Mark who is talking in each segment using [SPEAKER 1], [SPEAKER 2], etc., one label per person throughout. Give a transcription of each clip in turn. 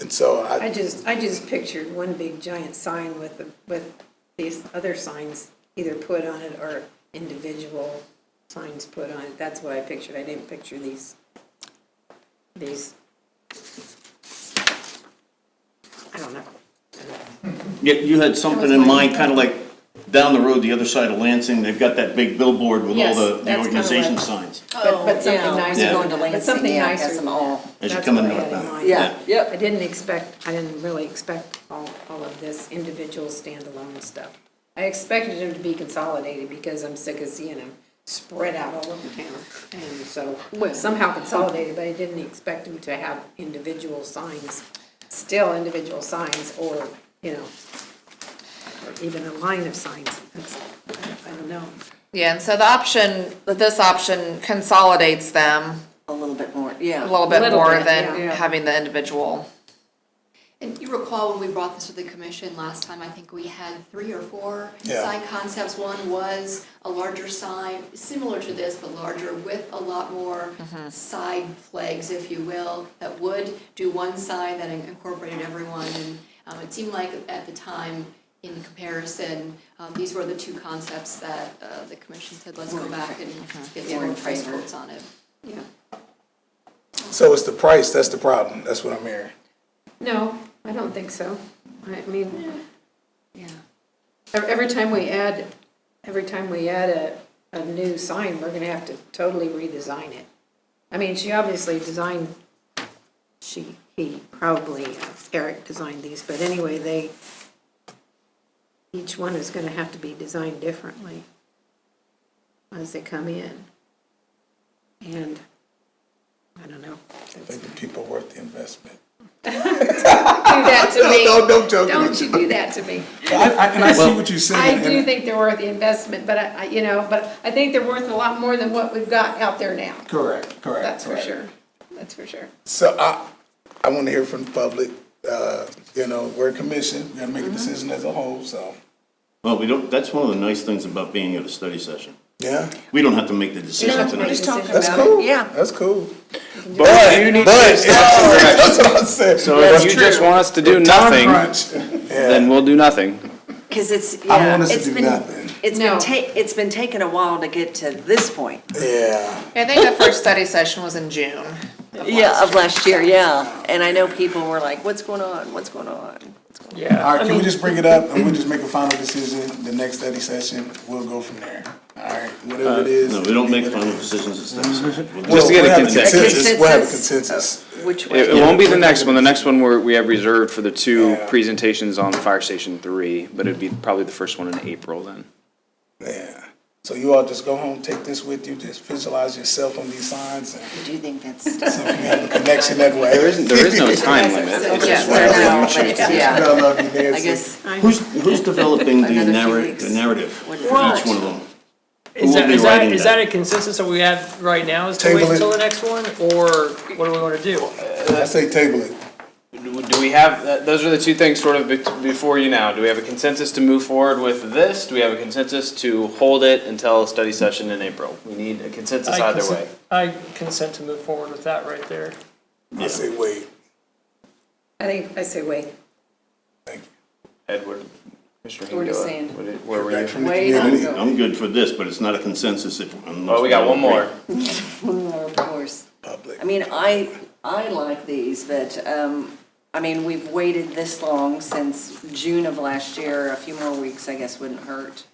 [SPEAKER 1] And so
[SPEAKER 2] I
[SPEAKER 1] I,
[SPEAKER 2] just, I just pictured one big giant sign with, the- with these other signs either put on it or individual signs put on it. That's what I pictured. I didn't picture these, these. I don't know.
[SPEAKER 3] Yeah, you had something
[SPEAKER 2] That
[SPEAKER 3] in
[SPEAKER 2] was my-
[SPEAKER 3] mind, kind of like down the road, the other side of Lansing, they've got that big billboard with all
[SPEAKER 2] Yes,
[SPEAKER 3] the-
[SPEAKER 2] that's
[SPEAKER 3] the
[SPEAKER 2] kinda
[SPEAKER 3] organization
[SPEAKER 2] what- Oh,
[SPEAKER 3] signs.
[SPEAKER 2] But, but something
[SPEAKER 4] Oh, yeah,
[SPEAKER 2] nicer.
[SPEAKER 3] Yeah.
[SPEAKER 4] going to
[SPEAKER 2] But something
[SPEAKER 4] Lansing, yeah,
[SPEAKER 2] nicer
[SPEAKER 4] has them
[SPEAKER 2] than
[SPEAKER 4] all.
[SPEAKER 2] that.
[SPEAKER 3] As you
[SPEAKER 2] That's
[SPEAKER 3] come
[SPEAKER 2] what
[SPEAKER 3] in
[SPEAKER 2] I
[SPEAKER 3] North
[SPEAKER 2] had in
[SPEAKER 3] Bound.
[SPEAKER 2] mind.
[SPEAKER 4] Yeah,
[SPEAKER 2] I
[SPEAKER 4] yep.
[SPEAKER 2] didn't expect, I didn't really expect all, all of this individual standalone stuff. I expected them to be consolidated because I'm sick of seeing them spread out all over town. And so somehow consolidated, but I didn't expect them to have individual signs, still individual signs or, you know, or even a line of signs. That's, I don't know.
[SPEAKER 5] Yeah, and so the option, this option consolidates them
[SPEAKER 4] A little bit more,
[SPEAKER 5] a
[SPEAKER 4] yeah.
[SPEAKER 5] little bit
[SPEAKER 2] Little
[SPEAKER 5] more
[SPEAKER 2] bit,
[SPEAKER 5] than
[SPEAKER 2] yeah.
[SPEAKER 5] having the individual.
[SPEAKER 6] And you recall when we brought this to the commission last time, I think we had three or four
[SPEAKER 1] Yeah.
[SPEAKER 6] sign concepts. One was a larger sign, similar to this, but larger with a lot more
[SPEAKER 4] Mm-hmm.
[SPEAKER 6] side flags, if you will, that would do one sign that incorporated everyone. And um, it seemed like at the time, in comparison, um, these were the two concepts that uh, the commission said, let's go back and
[SPEAKER 4] Were
[SPEAKER 6] get some
[SPEAKER 4] mm-hmm. in
[SPEAKER 6] more price
[SPEAKER 4] favor.
[SPEAKER 6] quotes on it. Yeah.
[SPEAKER 1] so it's the price, that's the problem, that's what I'm hearing.
[SPEAKER 2] No, I don't think so. I mean,
[SPEAKER 4] Yeah.
[SPEAKER 2] Ev- Every time we add, every time we add a, a new sign, we're gonna have to totally redesign it. I mean, she obviously designed, she, he, probably uh, Eric designed these, but anyway, they, each one is gonna have to be designed differently as they come in. And, I don't know.
[SPEAKER 1] I think the people worth the investment.
[SPEAKER 2] Do that to me.
[SPEAKER 1] No, no, I'm joking.
[SPEAKER 2] Don't you do that to me.
[SPEAKER 1] I, I, and I see what you're
[SPEAKER 2] I
[SPEAKER 1] saying.
[SPEAKER 2] do
[SPEAKER 1] and-
[SPEAKER 2] think they're worth the investment, but I, I- you know, but I think they're worth a lot more than what we've got out there now.
[SPEAKER 1] Correct, correct.
[SPEAKER 2] That's for
[SPEAKER 1] correct.
[SPEAKER 2] sure. That's for sure.
[SPEAKER 1] So I, I want to hear from the public, uh, you know, we're a commission, we're gonna
[SPEAKER 2] Mm-hmm.
[SPEAKER 1] make a decision as a whole, so,
[SPEAKER 3] Well, we don't, that's one of the nice things about being at a study session.
[SPEAKER 1] yeah,
[SPEAKER 3] We don't have to make the decision
[SPEAKER 2] have to make
[SPEAKER 3] tonight.
[SPEAKER 2] a decision.
[SPEAKER 1] that's cool.
[SPEAKER 4] yeah.
[SPEAKER 1] That's cool.
[SPEAKER 7] But you need to stop.
[SPEAKER 1] That's what I said.
[SPEAKER 7] So if you just want us to do nothing, then we'll do nothing.
[SPEAKER 4] Because it's,
[SPEAKER 1] I want
[SPEAKER 4] yeah,
[SPEAKER 1] us to
[SPEAKER 4] it's
[SPEAKER 1] do
[SPEAKER 4] been,
[SPEAKER 1] nothing.
[SPEAKER 4] it's
[SPEAKER 2] No.
[SPEAKER 4] been ta, it's been taking a while to get to this point.
[SPEAKER 1] Yeah.
[SPEAKER 5] I think the first study session was in June.
[SPEAKER 4] Yeah, of last year, yeah. And I know people were like, what's going on, what's going on?
[SPEAKER 1] All right, can we just bring it up and we'll just make a final decision, the next study session, we'll go from there. All right, whatever it is.
[SPEAKER 3] Uh, No, we don't make
[SPEAKER 1] leave it
[SPEAKER 3] final
[SPEAKER 1] at-
[SPEAKER 3] decisions at study sessions. We'll
[SPEAKER 1] Well,
[SPEAKER 3] just-
[SPEAKER 7] to get a
[SPEAKER 1] we'll have
[SPEAKER 7] consensus.
[SPEAKER 1] We'll have a
[SPEAKER 4] Consensus.
[SPEAKER 1] consensus.
[SPEAKER 4] Which
[SPEAKER 7] It,
[SPEAKER 4] way?
[SPEAKER 7] it won't be the next one. The next one we're, we have reserved for the two
[SPEAKER 1] Yeah.
[SPEAKER 7] presentations on Fire Station Three, but it'd be probably the first one in April then.
[SPEAKER 1] Yeah. So you all just go home, take this with you, just visualize yourself on these signs and
[SPEAKER 4] Do you think that's?
[SPEAKER 1] see if you have a connection that way.
[SPEAKER 7] There isn't, there is no time limit. It's
[SPEAKER 4] Yeah,
[SPEAKER 7] just whatever
[SPEAKER 4] no,
[SPEAKER 7] you
[SPEAKER 4] but
[SPEAKER 7] choose.
[SPEAKER 4] it's- yeah.
[SPEAKER 1] I love you,
[SPEAKER 4] I
[SPEAKER 1] Nancy.
[SPEAKER 4] guess,
[SPEAKER 3] Who's, who's developing the
[SPEAKER 4] Another few
[SPEAKER 3] narra-
[SPEAKER 4] weeks.
[SPEAKER 3] the narrative for
[SPEAKER 4] What
[SPEAKER 3] each
[SPEAKER 4] is
[SPEAKER 3] one of
[SPEAKER 4] it?
[SPEAKER 3] them?
[SPEAKER 8] Is
[SPEAKER 3] We'll
[SPEAKER 8] that,
[SPEAKER 3] be
[SPEAKER 8] is that,
[SPEAKER 3] writing
[SPEAKER 8] is
[SPEAKER 3] that.
[SPEAKER 8] that a consensus that we have right now, is to wait
[SPEAKER 1] Table it.
[SPEAKER 8] until the next one, or what do we wanna do?
[SPEAKER 1] I say table it.
[SPEAKER 7] Do do we have, th- those are the two things sort of bet- before you now. Do we have a consensus to move forward with this? Do we have a consensus to hold it until a study session in April? We need a consensus
[SPEAKER 8] I
[SPEAKER 7] either
[SPEAKER 8] consent-
[SPEAKER 7] way.
[SPEAKER 8] I consent to move forward with that right there.
[SPEAKER 1] I say wait.
[SPEAKER 2] I think, I say wait.
[SPEAKER 1] Thank you.
[SPEAKER 7] Edward, Mr.
[SPEAKER 4] We're just
[SPEAKER 7] Hengela,
[SPEAKER 4] saying.
[SPEAKER 7] what did- Where were
[SPEAKER 1] Back
[SPEAKER 7] you?
[SPEAKER 1] from the
[SPEAKER 4] Wait, I'm
[SPEAKER 1] community.
[SPEAKER 4] going.
[SPEAKER 3] I'm good for this, but it's not a consensus if. unless
[SPEAKER 7] Oh, we got
[SPEAKER 3] all
[SPEAKER 7] one
[SPEAKER 3] agree.
[SPEAKER 7] more.
[SPEAKER 4] of course.
[SPEAKER 1] Public.
[SPEAKER 4] I mean, I, I like these, but, um, I mean, we've waited this long since June of last year. A few more weeks, I guess, wouldn't hurt.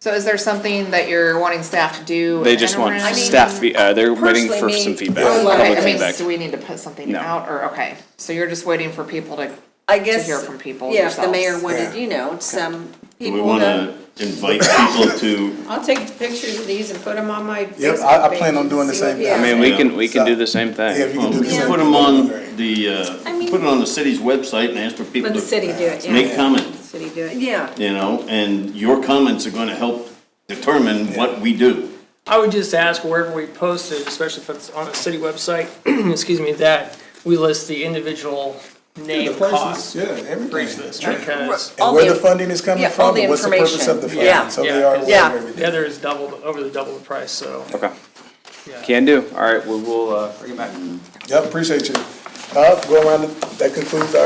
[SPEAKER 5] So is there something that you're wanting staff to do?
[SPEAKER 7] They just want
[SPEAKER 5] interim?
[SPEAKER 7] staff, fe- uh, they're waiting for
[SPEAKER 4] personally,
[SPEAKER 7] some
[SPEAKER 4] me-
[SPEAKER 7] feedback,
[SPEAKER 4] I like
[SPEAKER 7] public
[SPEAKER 5] Okay, I mean,
[SPEAKER 7] feedback.
[SPEAKER 5] so we need to put something
[SPEAKER 7] No.
[SPEAKER 5] out, or, okay, so you're just waiting for people to,
[SPEAKER 4] I guess.
[SPEAKER 5] hear from people
[SPEAKER 4] Yeah, if the
[SPEAKER 5] yourselves.
[SPEAKER 4] mayor
[SPEAKER 1] Yeah.
[SPEAKER 4] wanted, you know, some
[SPEAKER 3] Do we
[SPEAKER 4] people
[SPEAKER 3] want
[SPEAKER 4] to.
[SPEAKER 3] to invite people to,
[SPEAKER 2] I'll take pictures of these and put them on my
[SPEAKER 1] Yep,
[SPEAKER 2] Facebook
[SPEAKER 1] I, I
[SPEAKER 2] page
[SPEAKER 1] plan on
[SPEAKER 2] and
[SPEAKER 1] doing the
[SPEAKER 2] see
[SPEAKER 1] same
[SPEAKER 2] what-
[SPEAKER 1] thing.
[SPEAKER 7] I mean, we can, we can do the same
[SPEAKER 1] Yeah, if
[SPEAKER 7] thing.
[SPEAKER 1] you can do the same.
[SPEAKER 3] put
[SPEAKER 1] thing,
[SPEAKER 3] them on
[SPEAKER 1] that'd be great.
[SPEAKER 3] the, uh, put it on the city's website and ask for people
[SPEAKER 2] Let the
[SPEAKER 3] to
[SPEAKER 2] city do it, yeah.
[SPEAKER 3] make comments,
[SPEAKER 2] City do it.
[SPEAKER 4] Yeah,
[SPEAKER 3] you know? And your comments are going to help determine what we do.
[SPEAKER 8] I would just ask wherever we post it, especially if it's on a city website, excuse me, that we list the individual
[SPEAKER 1] The
[SPEAKER 8] name
[SPEAKER 1] prices,
[SPEAKER 8] costs.
[SPEAKER 1] yeah, everything.
[SPEAKER 8] Because
[SPEAKER 4] All
[SPEAKER 1] And where
[SPEAKER 4] the-
[SPEAKER 1] the funding is coming
[SPEAKER 4] yeah, all
[SPEAKER 1] from,
[SPEAKER 4] the
[SPEAKER 1] and what's the purpose of the
[SPEAKER 4] information. Yeah.
[SPEAKER 1] funding, so they
[SPEAKER 8] Yeah,
[SPEAKER 1] are
[SPEAKER 8] yeah.
[SPEAKER 1] aware of everything.
[SPEAKER 8] the other is double, over the double the price, so.
[SPEAKER 7] Okay,
[SPEAKER 8] yeah.
[SPEAKER 7] can do. All right, we will, uh, bring it back.
[SPEAKER 1] Yep, appreciate you. Uh, go around, the- that concludes our